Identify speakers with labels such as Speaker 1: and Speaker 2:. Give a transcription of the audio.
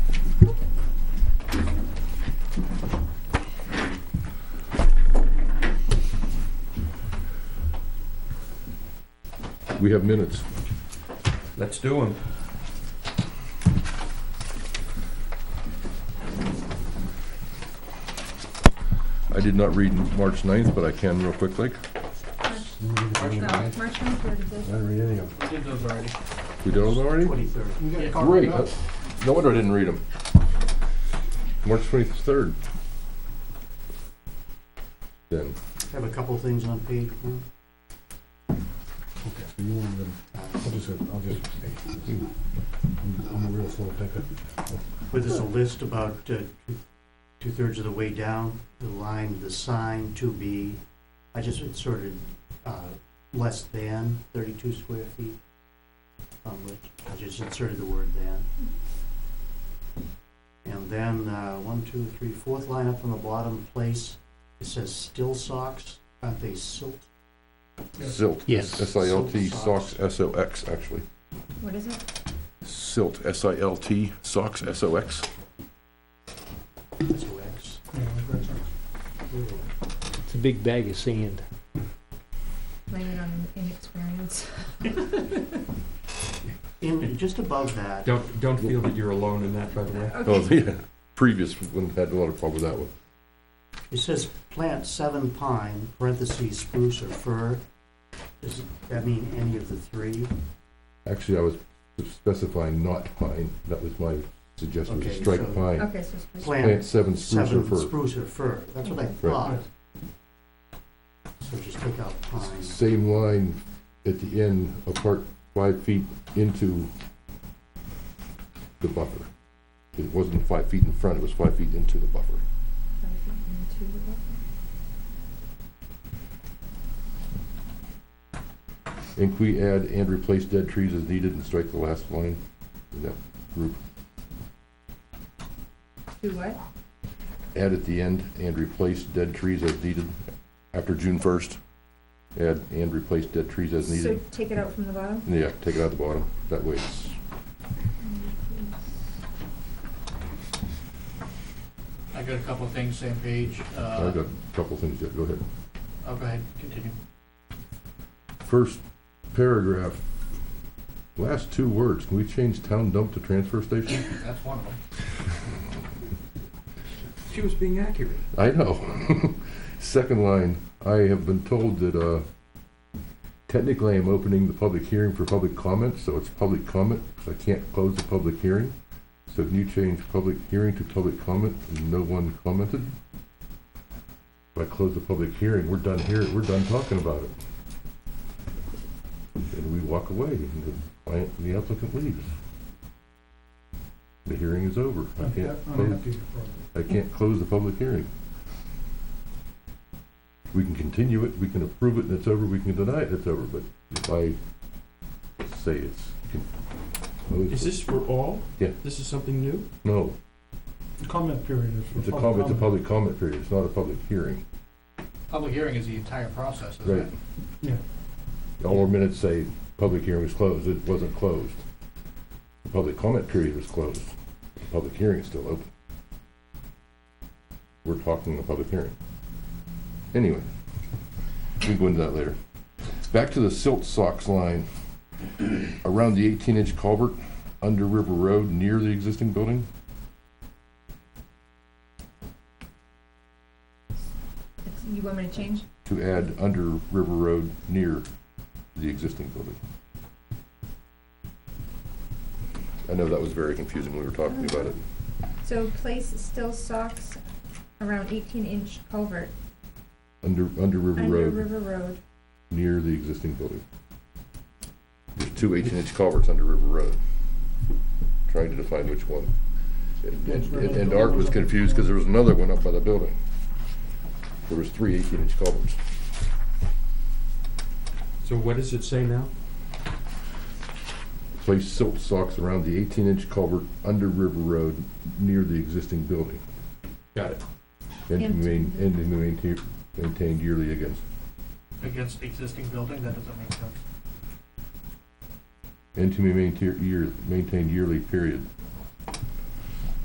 Speaker 1: We have minutes.
Speaker 2: Let's do them.
Speaker 1: I did not read March 9th, but I can real quickly.
Speaker 3: No, March 23rd is it?
Speaker 4: We did those already.
Speaker 1: We did those already?
Speaker 4: Twenty-third.
Speaker 1: Great. I- No wonder I didn't read them. March 23rd. Then,
Speaker 5: Have a couple things on page one.
Speaker 6: Okay, so you want them, I'll just, I'll just, I'm a real slow picker.
Speaker 5: But there's a list about uh, two-thirds of the way down, the line, the sign to be, I just inserted uh, less than 32 square feet. um, which I just inserted the word "than." And then, uh, one, two, three, fourth line up from the bottom place, it says still socks, aren't they silt?
Speaker 1: silt.
Speaker 5: Yes.
Speaker 1: S-I-L-T,
Speaker 5: Silk socks.
Speaker 1: SOX, S-O-X, actually.
Speaker 3: What is it?
Speaker 1: Silt, S-I-L-T, SOX, S-O-X.
Speaker 5: S-O-X.
Speaker 7: It's a big bag of sand.
Speaker 3: Blame it on inexperience.
Speaker 5: In, just above that,
Speaker 2: Don't, don't feel that you're alone in that, by the way.
Speaker 1: Oh,
Speaker 3: Okay.
Speaker 1: yeah. Previous one had a lot of problem with that one.
Speaker 5: It says plant seven pine, parentheses spruce or fir. Does that mean any of the three?
Speaker 1: Actually, I was specifying not pine. That was my suggestion, was
Speaker 5: Okay,
Speaker 1: strike
Speaker 5: so-
Speaker 1: pine.
Speaker 3: Okay, so it's-
Speaker 1: Plant
Speaker 5: Plant
Speaker 1: seven spruce or
Speaker 5: seven
Speaker 1: fir.
Speaker 5: spruce or fir, that's what I thought. So just take out pine.
Speaker 1: Same line at the end, apart five feet into the buffer. It wasn't five feet in front, it was five feet into the buffer. And can we add and replace dead trees as needed and strike the last line in that group?
Speaker 3: Do what?
Speaker 1: Add at the end and replace dead trees as needed after June first. Add and replace dead trees as
Speaker 3: So
Speaker 1: needed.
Speaker 3: take it out from the bottom?
Speaker 1: Yeah, take it out the bottom. That way it's
Speaker 4: I got a couple of things, same page. Uh,
Speaker 1: I've got a couple things yet, go ahead.
Speaker 4: I'll go ahead, continue.
Speaker 1: First paragraph, last two words, can we change town dump to transfer station?
Speaker 4: That's one of them.
Speaker 2: She was being accurate.
Speaker 1: I know. Second line, I have been told that, uh, technically I'm opening the public hearing for public comment, so it's public comment, 'cause I can't close the public hearing. So can you change public hearing to public comment, and no one commented? If I close the public hearing, we're done here, we're done talking about it. And we walk away, and the client, and the applicant leaves. The hearing is over. I
Speaker 6: I'm
Speaker 1: can't
Speaker 6: ha- I'm
Speaker 1: close
Speaker 6: happy to follow.
Speaker 1: I can't close the public hearing. We can continue it, we can approve it, and it's over, we can deny it, it's over, but if I say it's. closed,
Speaker 2: Is this for all?
Speaker 1: Yeah.
Speaker 2: This is something new?
Speaker 1: No,
Speaker 6: The comment period is for
Speaker 1: it's a
Speaker 6: public
Speaker 1: com, it's a
Speaker 6: comment.
Speaker 1: public comment period, it's not a public hearing.
Speaker 4: Public hearing is the entire process, isn't it?
Speaker 1: Right.
Speaker 6: Yeah.
Speaker 1: All our minutes say, public hearing was closed, it wasn't closed. The public comment period was closed, the public hearing is still open. We're talking the public hearing. Anyway, we can go into that later. Back to the silt socks line, around the eighteen inch culvert under River Road near the existing building.
Speaker 3: It's- You want me to change?
Speaker 1: to add under River Road near the existing building. I know that was very confusing when we were talking about it.
Speaker 3: So place still socks around 18-inch culvert
Speaker 1: Under, under River
Speaker 3: under
Speaker 1: Road,
Speaker 3: River Road.
Speaker 1: near the existing building. There's two eighteen-inch culverts under River Road. Trying to define which one. And, and- and and Art was confused because there was another one up by the building. There was three eighteen-inch culverts.
Speaker 2: So what does it say now?
Speaker 1: Place silt socks around the eighteen-inch culvert under River Road near the existing building.
Speaker 2: Got it.
Speaker 1: And to
Speaker 3: And-
Speaker 1: main, and to maintain, maintained yearly against,
Speaker 4: Against the existing building, that doesn't make sense.
Speaker 1: and to be maintained year, maintained yearly period.